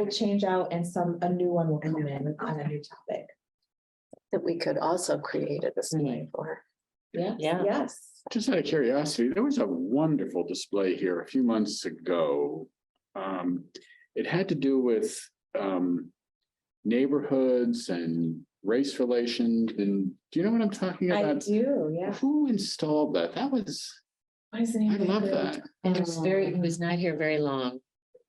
will change out and some, a new one will come in on a new topic. that we could also create a display Mm-hmm. for. Yes. Yeah. Yes. Just out of curiosity, there was a wonderful display here a few months ago. Um, it had to do with, um. Neighborhoods and race relations and, do you know what I'm talking I about? do, yeah. Who installed that? That was, What is the name I of love the- that. And it was Um, very, it was not here very long.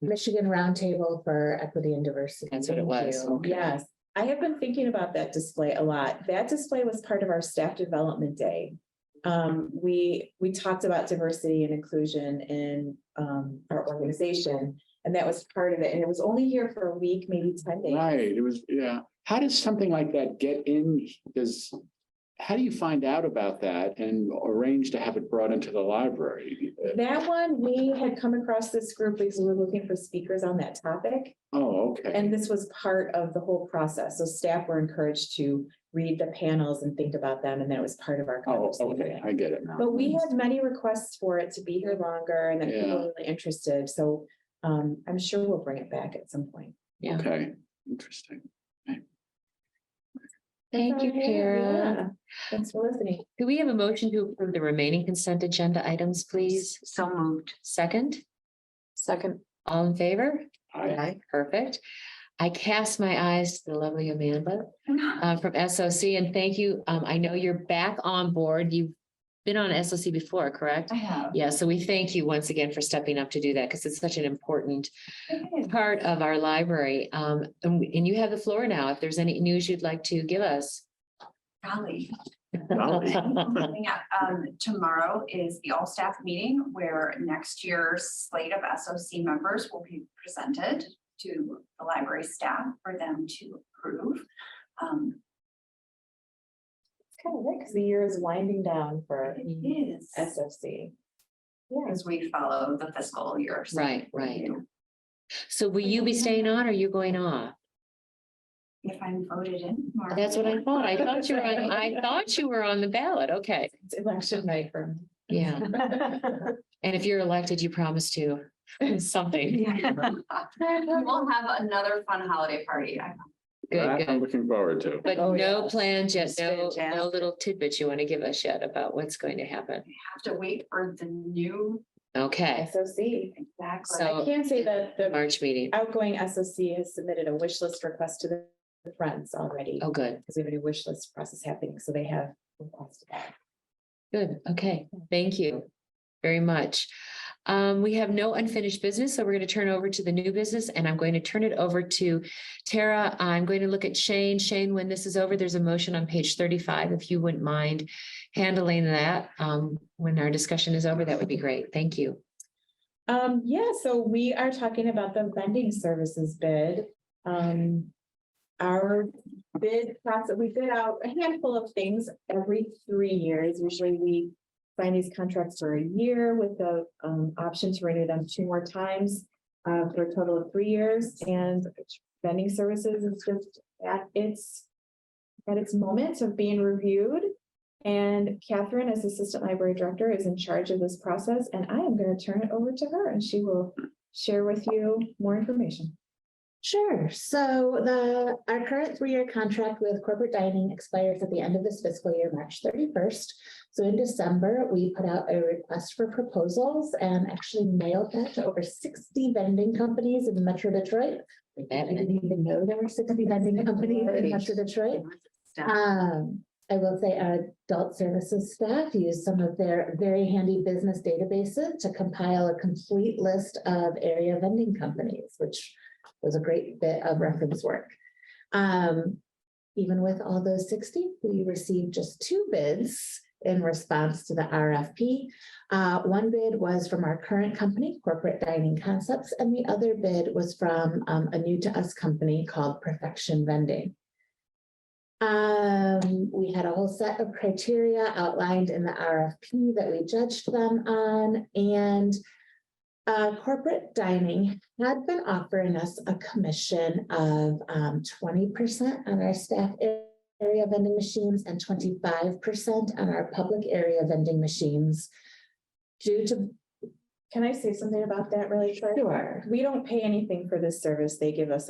Michigan Roundtable for Equity and Diversity. That's what it Thank was. you. Okay. Yes, I have been thinking about that display a lot. That display was part of our staff development day. Um, we, we talked about diversity and inclusion in, um, our organization. And that was part of it. And it was only here for a week, maybe ten days. Right, it was, yeah. How does something like that get in? Does, how do you find out about that and arrange to have it brought into the library? Uh, That one, we had come across this group because we were looking for speakers on that topic. Oh, okay. And this was part of the whole process. So staff were encouraged to read the panels and think about them, and that was part of our Oh, conversation. okay, I get it now. But we had many requests for it to be here longer and that people Yeah. were really interested, so um, I'm sure we'll bring it back at some point. Okay, interesting. Thank you, Okay, Kara. yeah. Thanks for listening. Do we have a motion to approve the remaining consent agenda items, please? So moved. Second, Second, all in favor? I, Perfect. I cast my eyes to the lovely Amanda uh, from SOC and thank you. Um, I know you're back on board. You've been on SOC before, correct? I have. Yeah, so we thank you once again for stepping up to do that because it's such an important part of our library. Um, and we- and you have the floor now. If there's any news you'd like to give us. Golly. Golly. Yeah, um, tomorrow is the all staff meeting where next year's slate of SOC members will be presented to the library staff for them to approve. Um, Kind of because the year is winding down for Mm. it is SFC. Yeah, as we follow the fiscal year. so Right, right. review. So will you be staying on or are you going off? If I'm voted in. tomorrow. That's what I thought. I thought you were, on- I thought you were on the ballot. Okay. it's election night for. Yeah. And if you're elected, you promise to something. We'll have another fun holiday party. I Good, that I'm good. looking forward to. But Oh, no yeah. plans yet, It's no, no fantastic. little tidbits you want to give us yet about what's going to happen. have to wait for the new. Okay, SFC. Exactly. So- I can say that the March meeting. outgoing SFC has submitted a wish list request to the friends already. Oh, good, Because we have a new wish list process happening, so they have requested that. good. Okay, thank you very much. Um, we have no unfinished business, so we're going to turn over to the new business and I'm going to turn it over to Tara. I'm going to look at Shane. Shane, when this is over, there's a motion on page thirty-five. If you wouldn't mind handling that, um, when our discussion is over, that would be great. Thank you. Um, yeah, so we are talking about the vending services bid. Um, our bid process, we bid out a handful of things every three years. Usually we sign these contracts for a year with the um option to renew them two more times uh for a total of three years and vending services is just at its at its moment of being reviewed. And Catherine, as Assistant Library Director, is in charge of this process, and I am gonna turn it over to her, and she will share with you more information. Sure. So the, our current three-year contract with corporate dining expires at the end of this fiscal year, March thirty-first. So in December, we put out a request for proposals and actually mailed that to over sixty vending companies in Metro Detroit. I didn't even know there were sixty vending companies in Metro Detroit. Um, I will say our adult services staff use some of their very handy business databases to compile a complete list of area vending companies, which was a great bit of reference work. Um, even with all those sixty, we received just two bids in response to the RFP. Uh, one bid was from our current company, Corporate Dining Concepts, and the other bid was from um, a new to us company called Perfection Vending. Um, we had a whole set of criteria outlined in the RFP that we judged them on, and uh, corporate dining had been offering us a commission of um, twenty percent on our staff a- area vending machines and twenty-five percent on our public area vending machines due to Can I say something about that really quick? Sure. We don't pay anything for this service. They give us a